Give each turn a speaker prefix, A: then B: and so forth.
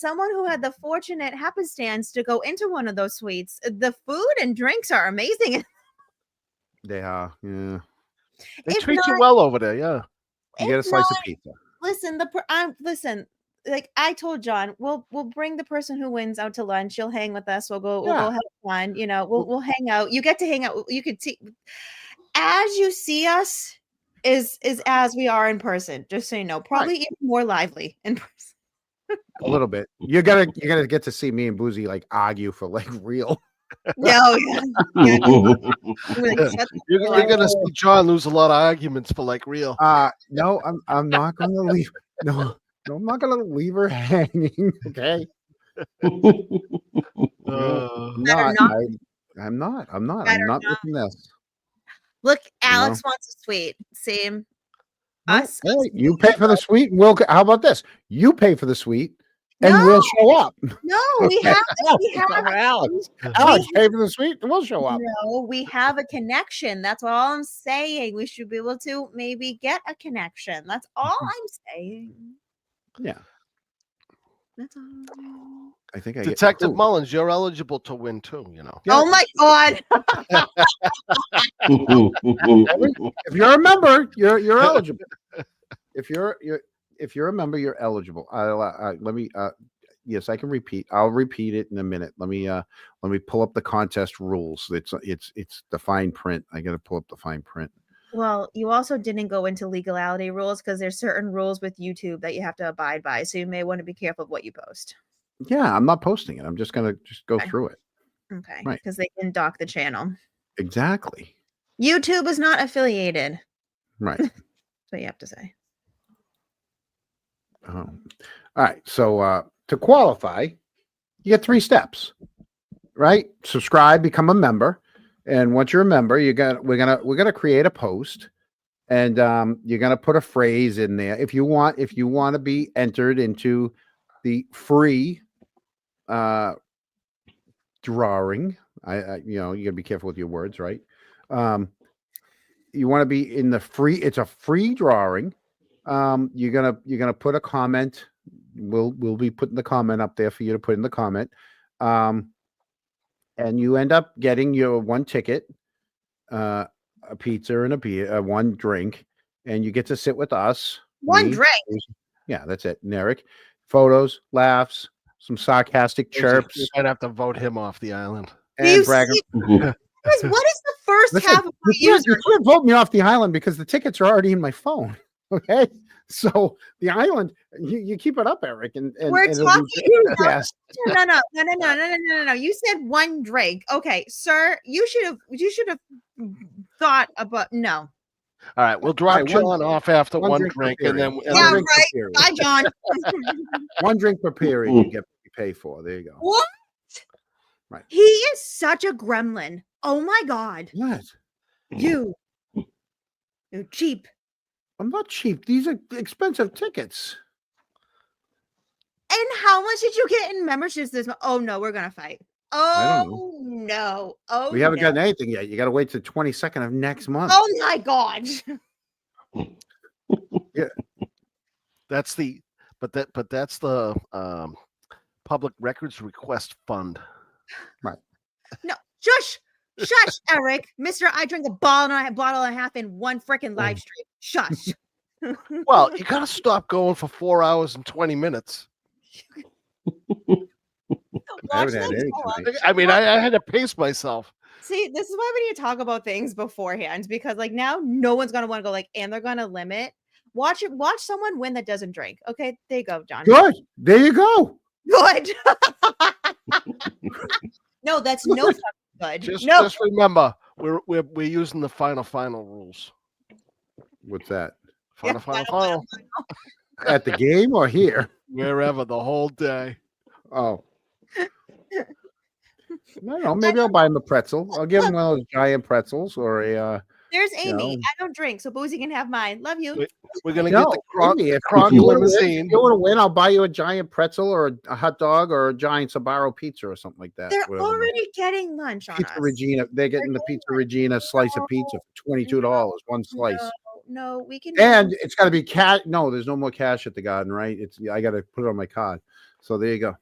A: someone who had the fortunate happenstance to go into one of those suites, uh, the food and drinks are amazing.
B: They are, yeah. They
A: If
B: treat you
A: not-
B: well over there, yeah. You get a
A: If
B: slice
A: not-
B: of pizza.
A: listen, the per- I'm listen. Like I told John, we'll we'll bring the person who wins out to lunch. You'll hang with us. We'll go. We'll
B: Yeah.
A: go have fun. You know, we'll we'll hang out. You get to hang out. You could see as you see us is is as we are in person. Just so you know, probably even more lively in person.
B: A little bit. You're gonna you're gonna get to see me and Boozy like argue for like real.
A: No, yeah,
C: Oh,
A: we're like, shut the
C: You're,
A: hell
C: you're
A: up.
C: gonna see John lose a lot of arguments for like real.
B: Uh no, I'm I'm not gonna leave. No, no, I'm not gonna leave her hanging. Okay.
C: Uh,
B: I'm
A: Better
B: not,
A: not.
B: I, am not. I'm not.
A: Better
B: I'm not
A: not.
B: with this.
A: Look, Alex wants a suite. Same.
B: No,
A: Us.
B: hey, you pay for the suite. We'll. c- How about this? You pay for the suite, and we'll
A: No.
B: show up.
A: No, we have we
B: It's
A: have
B: all right, Alex. Alex, pay for the suite, and we'll show up.
A: No, we have a connection. That's all I'm saying. We should be able to maybe get a connection. That's all
B: Mm-hmm.
A: I'm saying.
B: Yeah,
A: That's all. I'm saying.
B: I think I get-
C: Detective
B: Ooh,
C: Mullins, you're eligible to win too. You know.
B: Yeah.
A: Oh my god.
B: if you're a member, you're you're eligible. if you're you're if you're a member, you're eligible. I, I, let me. Uh, yes, I can repeat. I'll repeat it in a minute. Let me. Uh, let me pull up the contest rules. It's it's it's the fine print. I got to pull up the fine print.
A: Well, you also didn't go into legality rules because there's certain rules with YouTube that you have to abide by. So you may want to be careful of what you post.
B: Yeah, I'm not posting it. I'm just gonna just go
A: Okay.
B: through it.
A: Okay.
B: Right.
A: Because they can dock the channel.
B: Exactly.
A: YouTube is not affiliated. That's
B: Right.
A: what you have to say.
B: Um, all right. So uh, to qualify, you get three steps, right? Subscribe, become a member, and once you're a member, you're gonna we're gonna we're gonna create a post, and um, you're gonna put a phrase in there if you want if you want to be entered into the free uh, drawing. I, I you know you gotta be careful with your words, right? Um, you want to be in the free. It's a free drawing um, you're gonna you're gonna put a comment. We'll we'll be putting the comment up there for you to put in the comment, um, and you end up getting your one ticket, uh, a pizza and a beer, uh, one drink, and you get to sit with us.
A: One
B: me,
A: drink.
B: yeah, that's it. Narek, photos, laughs, some sarcastic
C: You
B: chirps,
C: might have to vote him off the island.
A: Do you
B: and
A: see, what
B: bragging.
A: is what is the first
B: Listen,
A: half of my
B: You can't,
A: user?
B: you can't vote me off the island because the tickets are already in my phone. Okay, so the island, you, you keep it up, Eric, and, and
A: We're
B: and it'll be
A: talking about
B: broadcast.
A: no, no, no, no, no, no, no, no, no, no, no. You said one drink. Okay, sir, you should have you should have thought about no.
C: All right, we'll drop
B: right, one-
C: John off after
B: one
C: one,
B: drink
C: drink,
B: for
C: and then
B: period.
C: and
A: Yeah,
C: then-
B: drink per
A: right.
B: period.
A: Bye, John.
B: One drink per period
C: Mm.
B: you get you pay for. There you go.
A: what?
B: Right.
A: He is such a gremlin. Oh my god.
B: What?
A: You. You cheap.
B: I'm not cheap. These are expensive tickets.
A: And how much did you get in memberships this month? Oh no, we're gonna fight.
B: I don't
A: Oh no. Oh
B: We haven't
A: no.
B: gotten anything yet. You got to wait till 22nd of next month.
A: Oh my god.
C: that's the but that but that's the um, public records request fund.
A: Shush. Shush, Eric. Mister, I drink a bottle and a bottle and a half in one freaking live stream. Shush.
C: Well, you gotta stop going for four hours and twenty minutes.
B: I
A: Watch
B: haven't had
A: them
B: any
A: go up.
B: tonight.
C: I mean, I, I had to pace myself.
A: See, this is why we need to talk about things beforehand because like now no one's gonna want to go like and they're gonna limit. Watch it, watch someone win that doesn't drink. Okay, there you go, John.
B: Good. There you go.
A: Good. no, that's no fucking good.
C: Just
A: no,
C: just remember, we're we're we're using the final final rules.
B: What's that?
A: Yeah,
C: Final final
A: final,
C: final.
B: At the game or here?
C: Wherever the whole day.
B: Oh. I don't know. Maybe I'll buy him a pretzel. I'll give him one of those giant pretzels or a. Uh,
A: there's Amy.
B: No.
A: I don't drink, so Boozy can have mine. Love you.
C: Wait, We're gonna
B: no,
C: get the cron-
B: Andy, if,
C: Kronk
B: if you want to win,
C: limousine.
B: if you wanna win, I'll buy you a giant pretzel or a, a hot dog or a giant Sabaro pizza or something like that.
A: They're
B: whatever the-
A: already getting lunch on
B: Pizza
A: us.
B: Regina. They're getting the
A: getting
B: Pizza Regina slice of pizza for twenty two dollars, one slice.
A: No, no, we can
B: And it's got to be cash. No, there's no more cash at the garden, right? It's I got to put it on my card. So there you go.